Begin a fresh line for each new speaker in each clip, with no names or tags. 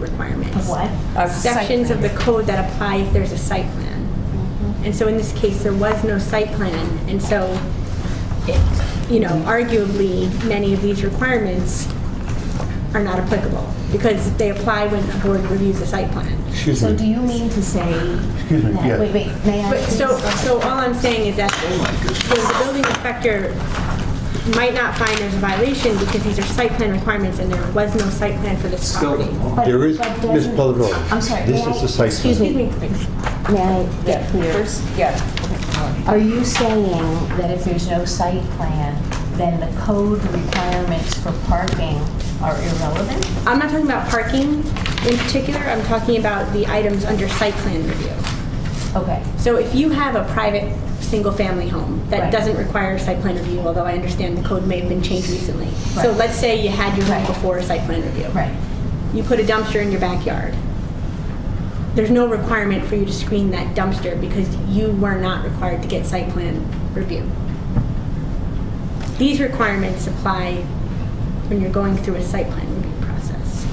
requirements.
Of what?
Of
Site
Sections of the
plan.
code that apply if there's a site plan.
Mm-hmm.
And so in this case, there was no site plan, and so, it- you know, arguably, many of these requirements are not applicable, because they apply when the board reviews the site plan.
Excuse
So do
me.
you mean to say?
Excuse me,
that-
yeah.
Wait, wait, may I?
But so,
please?
so all I'm saying is that the building inspector might not find there's a violation because these are site plan requirements and there was no site plan for this property.
But-
There is,
but
Ms.
doesn't-
Palladaro.
I'm sorry,
This
may
is
I-
the site.
Excuse
Excuse me,
me, please.
may I get clear?
Yeah.
Are you saying that if there's no site plan, then the code requirements for parking are irrelevant?
I'm not talking about parking in particular, I'm talking about the items under site plan review.
Okay,
So if you have a private, single-family home that
Right.
doesn't require site plan review, although I understand the code may have been changed recently. So
Right.
let's say you had your home
Right.
before site plan review.
right.
you put a dumpster in your backyard. There's no requirement for you to screen that dumpster because you were not required to get site plan review. These requirements apply when you're going through a site plan review process.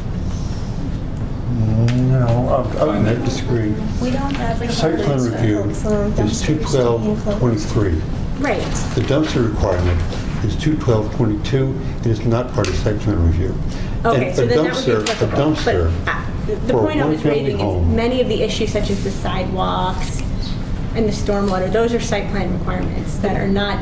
No, I'm- I'm going to disagree.
We don't have
Site plan
requirements for
review
for
is
dumpsters to be enclosed.
21223.
Right.
The dumpster requirement is 21222. It is not part of site plan review.
Okay,
And
so
a
then that would be
dumpster-
applicable.
A dumpster
But uh, the- the
for a
point I was
one-family
raising is
home.
many of the issues such as the sidewalks and the stormwater, those are site plan requirements that are not,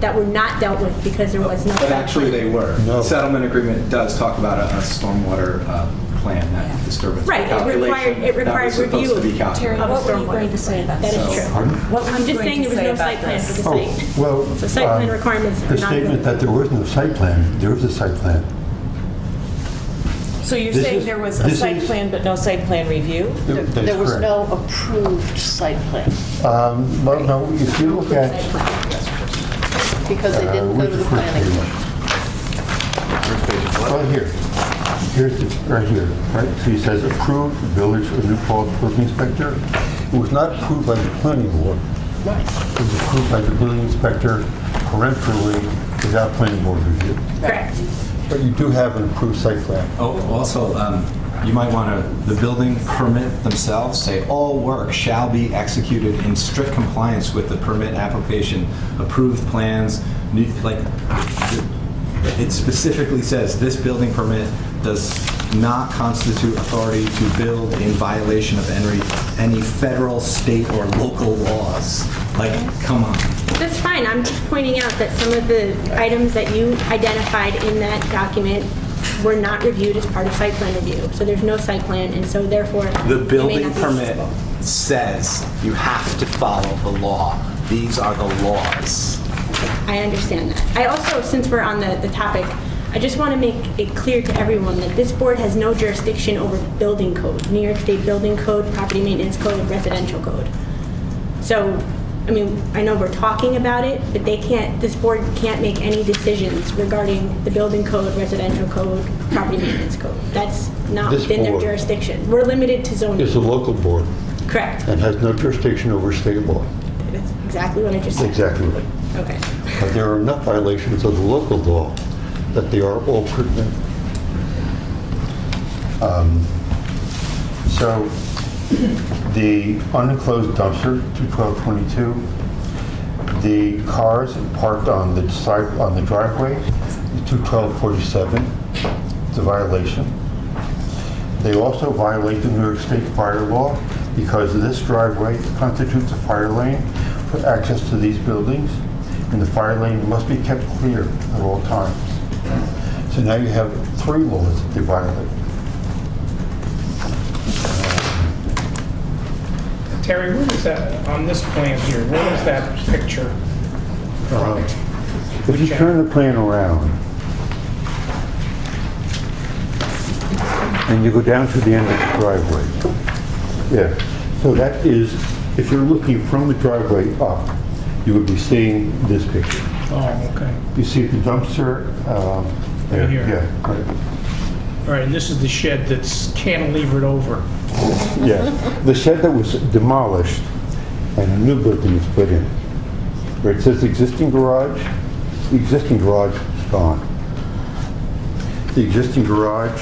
that were not dealt with because there was no.
But
site
actually,
plan.
they were.
No.
The Settlement agreement does talk about a a stormwater uh, plan, that disturbance
Right, it
calculation.
required- it
That
required
was supposed to
review.
be calculated.
Of
What were you
stormwater.
going to say about
That
this?
is true.
Pardon?
What were
I'm
you
just saying
going
there
to
was
say
no site
about
plan for the
this?
Oh,
site.
well.
So site plan
um,
requirements are
The
not good.
statement that there was no site plan, there is a site plan.
So you're
This
saying
is-
there was a
this
site
is-
plan but no site plan review?
That- that is
There was
correct.
no approved site plan,
Um, Well, no, if you look at.
because they
uh,
didn't go
where's
to
the first
the planning. board.
page? Right here. Here's, the- right here, right? So he says approved Village of New Paltz Building Inspector. It was not approved by the planning board. It was approved by the building inspector peremptorily without planning board review.
Correct.
But you do have an approved site plan.
Oh, Also, um, you might want to, the building permit themselves say, "All work shall be executed in strict compliance with the permit application, approved plans." new- Like, it specifically says, "This building permit does not constitute authority to build in violation of any any federal, state, or local laws." Like, come on.
That's fine, I'm just pointing out that some of the items that you identified in that document were not reviewed as part of site plan review. So there's no site plan, and so therefore.
The
it may
building
not be
permit
feasible.
says you have to follow the law. These are the laws.
I understand that. I also, since we're on the, the topic, I just want to make it clear to everyone that this board has no jurisdiction over building code, New York State Building Code, Property Maintenance Code, Residential Code. So, I mean, I know we're talking about it, but they can't, this board can't make any decisions regarding the building code, residential code, property maintenance code. That's not
This
within their
board-
jurisdiction. We're limited to
It's a
zoning.
local board
Correct.
and has no jurisdiction over state law.
That's exactly what I just said.
Exactly right.
Okay.
But there are enough violations of the local law that they are all pertinent. Um, So the unenclosed dumpster, 21222, the cars parked on the side, on the driveway, 21247, it's a violation. They also violate the New York State fire law because this driveway constitutes a fire lane for access to these buildings, and the fire lane must be kept clear at all times. So now you have three laws that they violate.
Terry, where is that, on this plan here, where is that picture?
Uh, If you turn the plan around, and you go down to the end of the driveway, yeah, so that is, if you're looking from the driveway up, you would be seeing this picture.
Oh, okay.
You see the dumpster, um, there,
Right here.
yeah, right.
All right, and this is the shed that's cantilevered over.
yeah. The shed that was demolished and a new building was put in. Where it says existing garage, the existing garage is gone. The existing garage